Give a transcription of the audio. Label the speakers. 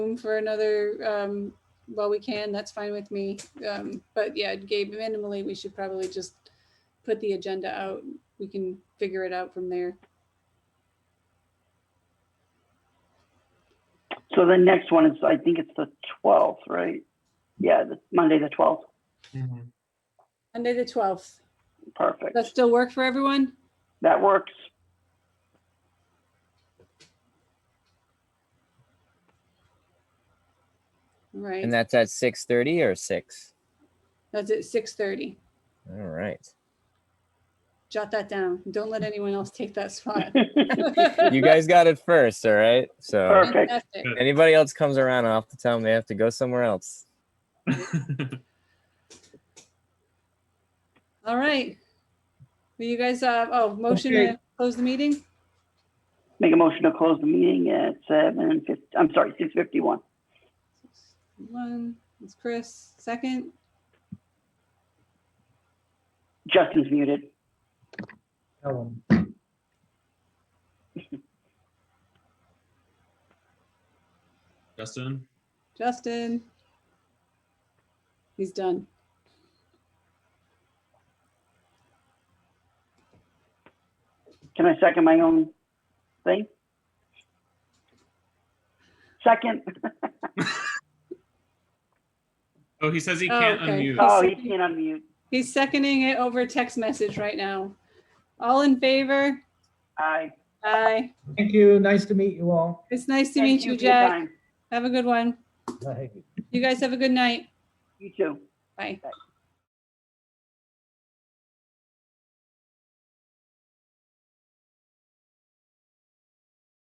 Speaker 1: room for another, um, well, we can, that's fine with me. Um, but yeah, Gabe, minimally, we should probably just put the agenda out. We can figure it out from there.
Speaker 2: So the next one is, I think it's the twelfth, right? Yeah, the Monday, the twelfth.
Speaker 3: Mhm.
Speaker 1: Monday, the twelfth.
Speaker 2: Perfect.
Speaker 1: That still work for everyone?
Speaker 2: That works.
Speaker 1: Right,
Speaker 4: And that's at six thirty or six.
Speaker 1: that's at six thirty.
Speaker 4: All right.
Speaker 1: Jot that down. Don't let anyone else take that spot.
Speaker 4: You guys got it first, all right? So
Speaker 2: Perfect.
Speaker 1: Fantastic.
Speaker 4: anybody else comes around, I'll have to tell them they have to go somewhere else.
Speaker 1: All right. Will you guys, uh, oh, motion to close the meeting?
Speaker 2: Make a motion to close the meeting at seven fifty, I'm sorry, six fifty-one.
Speaker 1: One, it's Chris, second.
Speaker 2: Justin's muted.
Speaker 3: Ellen,
Speaker 5: Justin,
Speaker 1: Justin. He's done.
Speaker 2: Can I second my own thing? Second.
Speaker 5: oh, he says he
Speaker 1: Oh,
Speaker 5: can't
Speaker 1: okay.
Speaker 5: unmute.
Speaker 2: Oh, he can't unmute.
Speaker 1: He's seconding it over text message right now. All in favor?
Speaker 2: Aye.
Speaker 1: Aye.
Speaker 3: Thank you. Nice to meet you all.
Speaker 1: It's nice to
Speaker 2: Thank
Speaker 1: meet you,
Speaker 2: for your
Speaker 1: Jack.
Speaker 2: time.
Speaker 1: Have a good one.
Speaker 3: Bye.
Speaker 1: You guys have a good night.
Speaker 2: You too.
Speaker 1: Bye.